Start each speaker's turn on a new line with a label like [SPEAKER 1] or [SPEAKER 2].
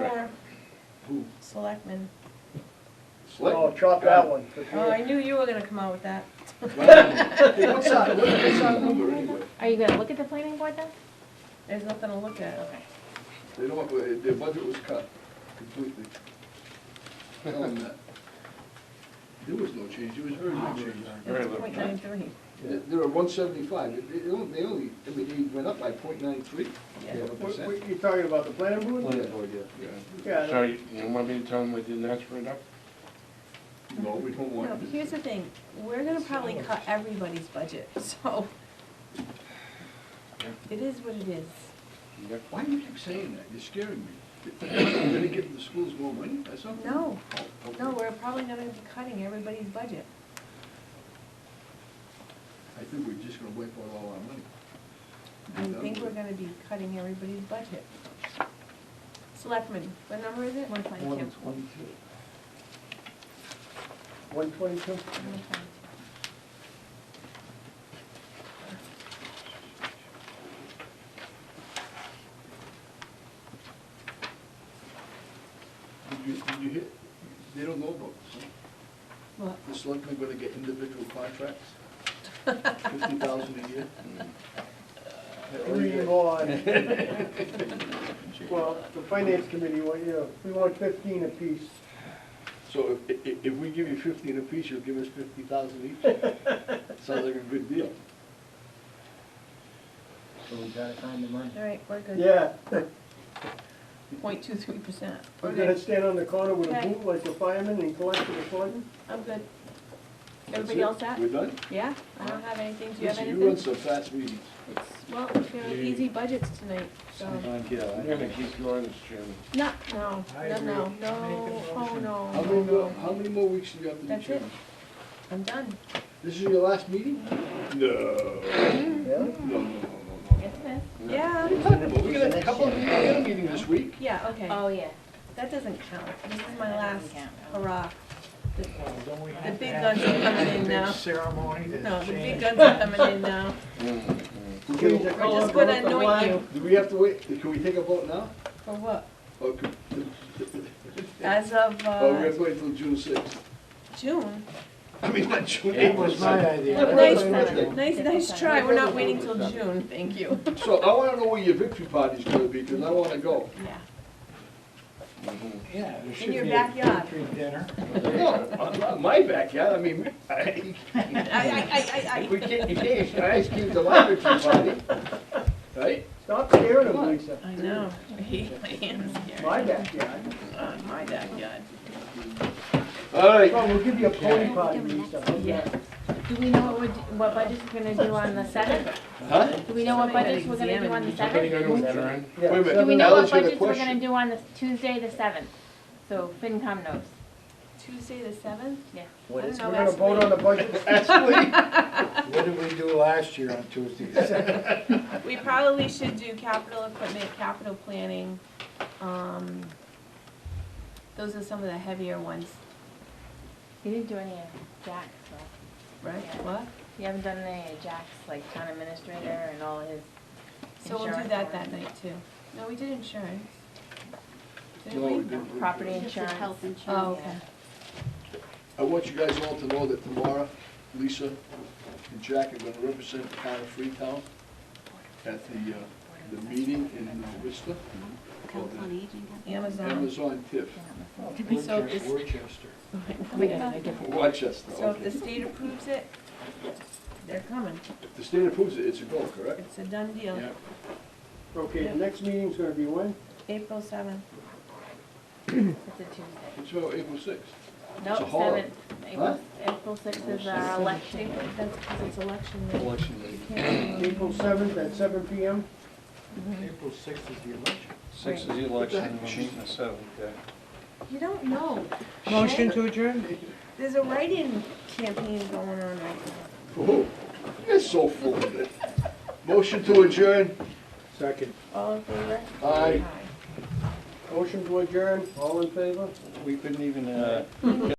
[SPEAKER 1] Or
[SPEAKER 2] Who?
[SPEAKER 1] selectmen.
[SPEAKER 3] Oh, chop that one. for
[SPEAKER 1] Oh, I
[SPEAKER 3] sure.
[SPEAKER 1] knew you were gonna come out with that.
[SPEAKER 2] Hey, What's our, what's our number anyway?
[SPEAKER 4] Are you gonna look at the planning board then?
[SPEAKER 1] There's nothing to look at.
[SPEAKER 2] They don't, uh, their budget was cut completely. Tell them that. There was no change, there was very little change.
[SPEAKER 1] It's point nine three.
[SPEAKER 2] They- They're at one seventy-five, they they only, they only, I mean, they went up by point nine three,
[SPEAKER 1] Yeah.
[SPEAKER 3] What-
[SPEAKER 2] percent.
[SPEAKER 3] what- You talking about the planning board?
[SPEAKER 5] Planning board, yeah.
[SPEAKER 3] Yeah,
[SPEAKER 6] So you you want me to tell them we didn't ask for it up?
[SPEAKER 2] No, we don't
[SPEAKER 1] No,
[SPEAKER 2] want
[SPEAKER 1] but
[SPEAKER 2] it.
[SPEAKER 1] here's the thing, we're gonna probably cut everybody's budget, so. It is what it is.
[SPEAKER 6] Yep.
[SPEAKER 2] Why do you keep saying that? You're scaring me. You're gonna give the schools more money, that's all?
[SPEAKER 1] No,
[SPEAKER 2] Oh, okay.
[SPEAKER 1] no, we're probably gonna be cutting everybody's budget.
[SPEAKER 2] I think we're just gonna wipe out all our money.
[SPEAKER 1] I think we're gonna be cutting everybody's budget. Selectmen, what number is it? One
[SPEAKER 5] One twenty-two.
[SPEAKER 3] one twenty-two.
[SPEAKER 2] Did you, did you hear, they don't know about this, huh?
[SPEAKER 1] What?
[SPEAKER 2] The selectmen gonna get individual contracts? Fifty thousand a year?
[SPEAKER 3] Three on. Well, the finance committee, well, yeah, we want fifteen apiece.
[SPEAKER 2] So if, if, if we give you fifteen apiece, you'll give us fifty thousand each? Sounds like a good deal.
[SPEAKER 5] So we gotta find the money.
[SPEAKER 1] All right, we're good.
[SPEAKER 3] Yeah,
[SPEAKER 1] Point two three percent.
[SPEAKER 3] we're gonna stand on the corner with a
[SPEAKER 1] Okay.
[SPEAKER 3] boot like a fireman and collect for the fund.
[SPEAKER 1] I'm good.
[SPEAKER 2] That's
[SPEAKER 1] Everybody
[SPEAKER 2] it?
[SPEAKER 1] else at?
[SPEAKER 2] We're done?
[SPEAKER 1] Yeah, I don't have anything, do you have
[SPEAKER 2] Listen,
[SPEAKER 1] anything?
[SPEAKER 2] you run some fast meetings.
[SPEAKER 1] It's, well, it's gonna be easy budgets tonight, so,
[SPEAKER 5] Sometimes, yeah, I
[SPEAKER 6] I'm gonna
[SPEAKER 5] think
[SPEAKER 6] keep going, Mr. Chairman.
[SPEAKER 1] no, no,
[SPEAKER 5] I
[SPEAKER 1] no,
[SPEAKER 5] agree.
[SPEAKER 1] no,
[SPEAKER 5] Make
[SPEAKER 1] no,
[SPEAKER 5] a
[SPEAKER 1] oh,
[SPEAKER 5] motion.
[SPEAKER 1] no,
[SPEAKER 2] How
[SPEAKER 1] no,
[SPEAKER 2] many more,
[SPEAKER 1] no.
[SPEAKER 2] how many more weeks do you have to be
[SPEAKER 1] That's it,
[SPEAKER 2] chairman?
[SPEAKER 1] I'm done.
[SPEAKER 2] This is your last meeting? No.
[SPEAKER 3] Yeah?
[SPEAKER 2] No, no, no, no, no.
[SPEAKER 1] Yeah,
[SPEAKER 2] What are you talking about? We got a couple, we got a meeting this week.
[SPEAKER 1] yeah, okay,
[SPEAKER 4] Oh, yeah.
[SPEAKER 1] that doesn't count, this is my
[SPEAKER 4] That
[SPEAKER 1] last
[SPEAKER 4] doesn't count.
[SPEAKER 1] hurrah. The
[SPEAKER 5] Don't we
[SPEAKER 1] the
[SPEAKER 5] have to
[SPEAKER 1] big
[SPEAKER 5] have
[SPEAKER 1] guns are coming in now,
[SPEAKER 5] ceremony to
[SPEAKER 1] no, the big
[SPEAKER 5] change?
[SPEAKER 1] guns are coming in now,
[SPEAKER 3] Clean the
[SPEAKER 1] we're just
[SPEAKER 3] corner,
[SPEAKER 1] gonna
[SPEAKER 3] go up
[SPEAKER 1] anoint
[SPEAKER 3] the
[SPEAKER 1] you.
[SPEAKER 3] line.
[SPEAKER 2] Do we have to wait? Can we take a vote now?
[SPEAKER 1] For what?
[SPEAKER 2] Or could-
[SPEAKER 1] As of,
[SPEAKER 2] or we
[SPEAKER 1] uh,
[SPEAKER 2] have to wait till June sixth?
[SPEAKER 1] June,
[SPEAKER 2] I mean, not June
[SPEAKER 5] It
[SPEAKER 2] eighth.
[SPEAKER 5] was my idea.
[SPEAKER 1] nice,
[SPEAKER 2] Perfect.
[SPEAKER 1] nice, nice try, we're not waiting till June, thank you.
[SPEAKER 2] So I wanna know where your victory party's gonna be, cause I wanna go.
[SPEAKER 1] Yeah,
[SPEAKER 5] Yeah, there should
[SPEAKER 1] your
[SPEAKER 5] be a
[SPEAKER 1] backyard.
[SPEAKER 5] free dinner.
[SPEAKER 2] No, I'm not in my backyard, I mean, I,
[SPEAKER 1] I, I, I, I, I.
[SPEAKER 2] we can't, you can't, your eyes came to my victory party, right?
[SPEAKER 3] Stop staring at me, Lisa.
[SPEAKER 1] I know, I hate my hands here.
[SPEAKER 3] My backyard.
[SPEAKER 1] Uh, my backyard.
[SPEAKER 2] All right,
[SPEAKER 3] Well, we'll give you a pony party, Lisa. how's
[SPEAKER 1] Yeah.
[SPEAKER 3] that?
[SPEAKER 4] Do we know what we're, d- what budgets we're gonna do on the seventh?
[SPEAKER 2] huh?
[SPEAKER 4] Do we know what budgets we're gonna do on the
[SPEAKER 6] Somebody
[SPEAKER 4] seventh?
[SPEAKER 6] gonna adjourn?
[SPEAKER 3] Yeah,
[SPEAKER 2] Wait a minute.
[SPEAKER 4] Do we
[SPEAKER 3] seven-
[SPEAKER 4] know
[SPEAKER 2] Alice
[SPEAKER 4] what
[SPEAKER 2] had a
[SPEAKER 4] budgets we're
[SPEAKER 2] question.
[SPEAKER 4] gonna do on the Tuesday, the seventh? So FinCom knows.
[SPEAKER 1] Tuesday the seventh?
[SPEAKER 4] Yeah.
[SPEAKER 1] I don't know,
[SPEAKER 3] We're gonna
[SPEAKER 1] ask
[SPEAKER 3] vote on the
[SPEAKER 1] Lee.
[SPEAKER 3] budget.
[SPEAKER 2] Actually,
[SPEAKER 5] What did we do last year on Tuesday?
[SPEAKER 1] Uh, We probably should do capital equipment, capital planning, um, those are some of the heavier ones,
[SPEAKER 4] You didn't do any of Jack's, though.
[SPEAKER 1] right?
[SPEAKER 4] Yeah.
[SPEAKER 1] What?
[SPEAKER 4] You haven't done any of Jack's, like town administrator and all his
[SPEAKER 1] So we'll do
[SPEAKER 4] Insurance
[SPEAKER 1] that
[SPEAKER 4] one.
[SPEAKER 1] that night too. No, we did insurance.
[SPEAKER 2] No, we
[SPEAKER 1] Didn't we?
[SPEAKER 2] didn't.
[SPEAKER 4] property insurance.
[SPEAKER 1] Oh, okay.
[SPEAKER 2] I want you guys all to know that tomorrow, Lisa and Jack are gonna represent the town of Freetown at the, uh, the meeting in uh, Worcester. called the
[SPEAKER 1] Amazon.
[SPEAKER 2] Amazon TIF,
[SPEAKER 1] So if this-
[SPEAKER 5] Worcester.
[SPEAKER 2] Rochester,
[SPEAKER 1] So if the
[SPEAKER 2] okay.
[SPEAKER 1] state approves it, they're coming.
[SPEAKER 2] If the state approves it, it's a go, correct?
[SPEAKER 1] It's a done deal.
[SPEAKER 2] Yeah.
[SPEAKER 3] Okay, the next meeting's gonna be when?
[SPEAKER 1] April seventh.
[SPEAKER 4] It's a Tuesday.
[SPEAKER 2] It's uh, April sixth.
[SPEAKER 4] No,
[SPEAKER 2] It's a horror.
[SPEAKER 4] seventh. April, April sixth is our election.
[SPEAKER 1] April- That's because it's election day.
[SPEAKER 2] Election day.
[SPEAKER 3] April seventh at seven PM?
[SPEAKER 5] April sixth is the election.
[SPEAKER 7] Six is the election, and we're meeting the seventh, yeah.
[SPEAKER 1] You don't know.
[SPEAKER 8] Motion to adjourn?
[SPEAKER 1] There's a write-in campaign going on right now.
[SPEAKER 2] Oh, you're so full of it. Motion to adjourn.
[SPEAKER 3] Second.
[SPEAKER 1] All in favor?
[SPEAKER 2] Aye.
[SPEAKER 3] Motion to adjourn, all in favor?
[SPEAKER 5] We couldn't even,
[SPEAKER 7] Uh,